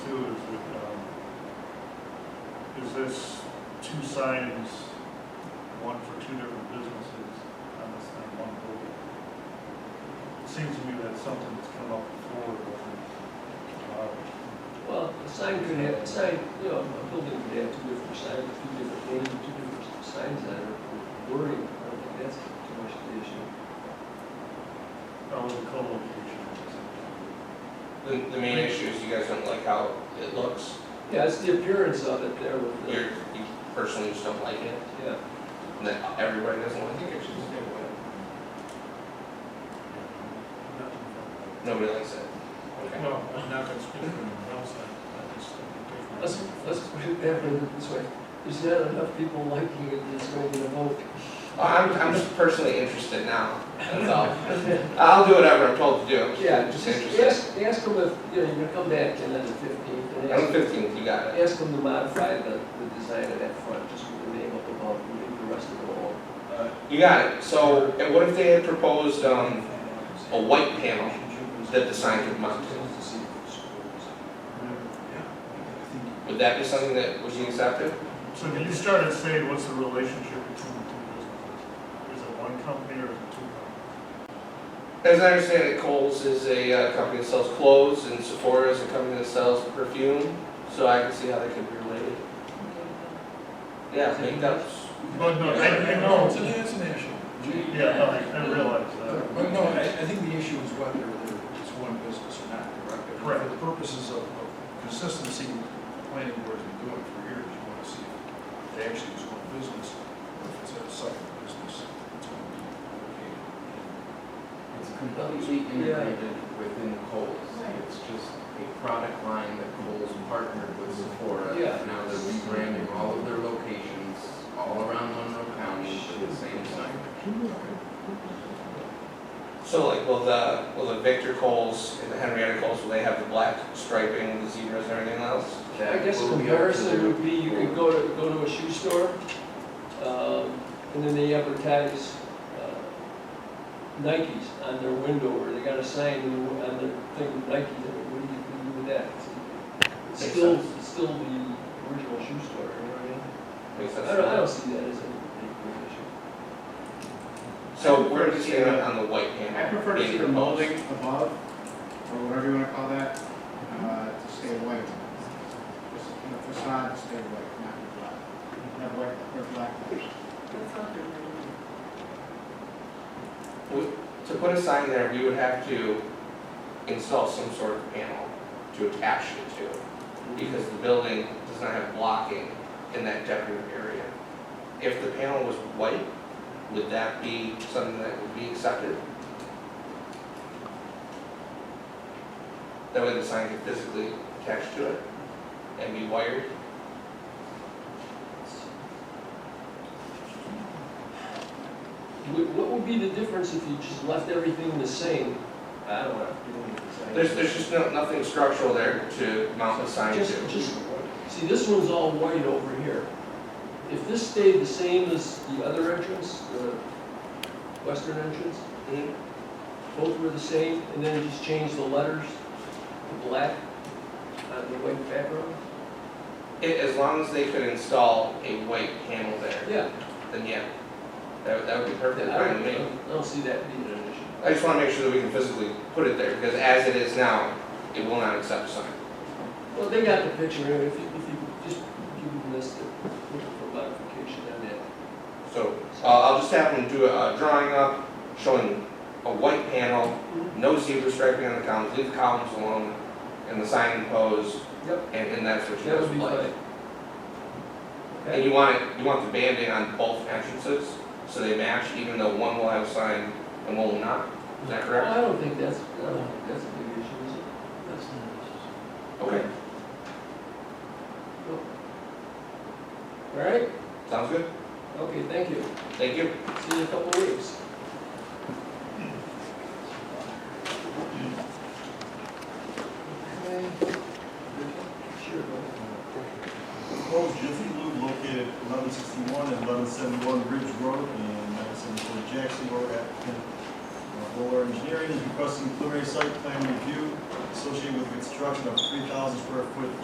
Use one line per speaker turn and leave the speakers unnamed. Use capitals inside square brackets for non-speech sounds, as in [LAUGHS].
Is um, this two signs, one for two different businesses on this thing, one building? It seems to me that's something that's come up before, but, uh,
Well, a sign could have, a sign, you know, a building could have two different signs, two different names, two different signs that are for wording, I don't think that's too much of the issue.
Oh, the co-location.
The, the main issue is you guys don't like how it looks.
Yeah, it's the appearance of it there with the,
You're, you personally just don't like it,
yeah.
and then everybody doesn't like it, it's just everywhere. Nobody likes it. Okay.
Well, I'm not gonna speak for anyone else, I, I just.
Let's, let's put it that way, this way, there's not enough people liking it that's going to vote.
Well, Oh, I'm,
[LAUGHS]
I'm just personally interested now, that's all. I'll do whatever I'm told to do, I'm
Yeah,
just-
just
just interested.
ask, ask them if, you know, you're gonna come back in on the fifteenth and
I'm
ask,
fifteen, you got it.
ask them to modify the, the design of that front, just with the name up above, and leave the rest of it alone.
You got it, so, and what if they had proposed, um, a white panel that the sign could mount? Would that be something that would be accepted?
So when you started saying, what's the relationship between the two businesses? Is it one company or is it two companies?
As I understand it, Kohl's is a uh, company that sells clothes, and Sephora is a company that sells perfume, so I can see how they could be related. Yeah, makeups.
But Oh, no, I, I
It's
know,
an, it's an issue.
yeah, no, I, I realize that.
But no, I, I think the issue is whether it's one business or not, correct?
Correct.
For the purposes of of consistency, the planning board's been doing for years, you wanna see if they actually is one business, or if it's a second business, it's gonna be okay.
It's completely integrated within Kohl's.
Uh,
It's just a product line that Kohl's partnered with Sephora.
Yeah.
Now they're rebranding all of their locations all around Monroe County to the same sign.
So like, will the, will the Victor Kohl's and the Henrietta Kohl's, will they have the black striping and the zebras and everything else?
That
I guess a
will be up to
comparison
their-
would be, you could go to, go to a shoe store, um, and then they advertise, uh, Nikes on their window, or they got a sign on the- on their thing, Nike, what do you can do with that? It's
Makes
still,
sense.
it's still the original shoe store, you know what
Makes
I mean? I don't, I don't
sense.
see that as a big issue.
So where do you stand on the white panel?
I prefer to
being
see the
proposed?
molding above, or whatever you wanna call that, uh, to stay away. Just, you know, facade to stay away, not be black. Not white, or black.
Would- To put a sign there, we would have to install some sort of panel to attach it to, because the building does not have blocking in that decorative area. If the panel was white, would that be something that would be accepted? That way the sign could physically attach to it and be wired?
What, what would be the difference if you just left everything the same? I don't know, you don't need the sign.
There's, there's just no, nothing structural there to mount the sign
Just,
to.
just, see, this one's all white over here. If this stayed the same as the other entrance, the western entrance,
Mhm.
both were the same, and then just change the letters to black on the white background?
It- As long as they could install a white panel there.
Yeah,
then yeah, that, that would be
I
perfect.
don't,
fine with
I
me.
don't- I don't see that being an issue.
I just wanna make sure that we can physically put it there, because as it is now, it will not accept a sign.
Well, they got the picture, and if you, if you just, you missed it, look for modification on that.
So, uh, I'll just have them do a a drawing up, showing a white panel, no zebra striping on the columns, leave the columns alone, and the sign imposed,
Yep,
and, and that's what you
that
guys
would be
would
fine.
like. And you want it, you want the banding on both entrances, so they match, even though one will have a sign and one will not, is that
Well,
correct?
I don't think that's, I don't think that's a big issue, is it? That's not
Mm-hmm.
an issue.
Okay,
All right,
sounds good,
okay, thank you.
thank you.
See you in a couple of weeks. Sure.
Proposed Jiffy Lube located at eleven sixty-one and eleven seventy-one Ridge Road and nine seventy-four Jackson Road. Applicant uh, Bowler Engineering is requesting preliminary site plan review associated with construction of three thousand square foot